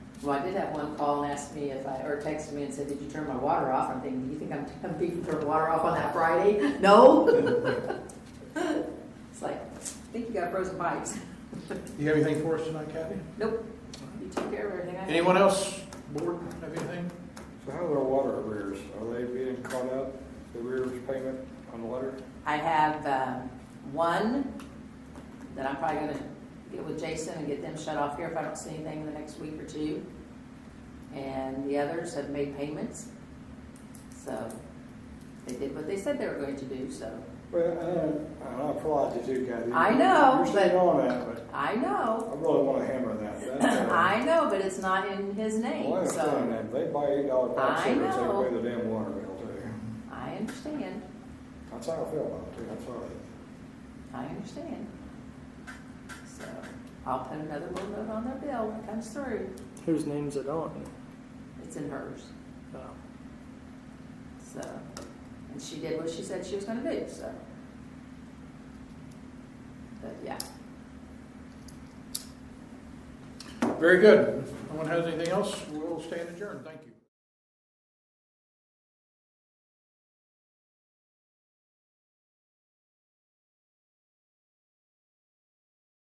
Well, I did have one call and asked me if I, or texted me and said, did you turn my water off? I'm thinking, do you think I'm, I'm being turned water off on that Friday? No? It's like, I think you got frozen pipes. You have anything for us tonight, Kathy? Nope. You took care of everything I had. Anyone else, board, have anything? So how's our water arrears? Are they being caught up, the arrears payment on the letter? I have um, one that I'm probably gonna get with Jason and get them shut off here if I don't see anything in the next week or two. And the others have made payments. So they did what they said they were going to do, so Well, I don't, I don't applaud you too, Kathy. I know, You're but- sitting on that, but I know. I really wanna hammer that. That's, uh, I know, but it's not in his Well, I name, understand so that. They buy eight dollar I pop cigarettes, they know. pay the damn water bill too. I understand. That's how I feel about it too, I'm sorry. I understand. So I'll put another little note on their bill when it comes through. Whose name's it on? It's in hers. Uh, So, and she did what she said she was gonna do, so. But yeah, Very good. No one has anything else? We'll stand adjourned. Thank you.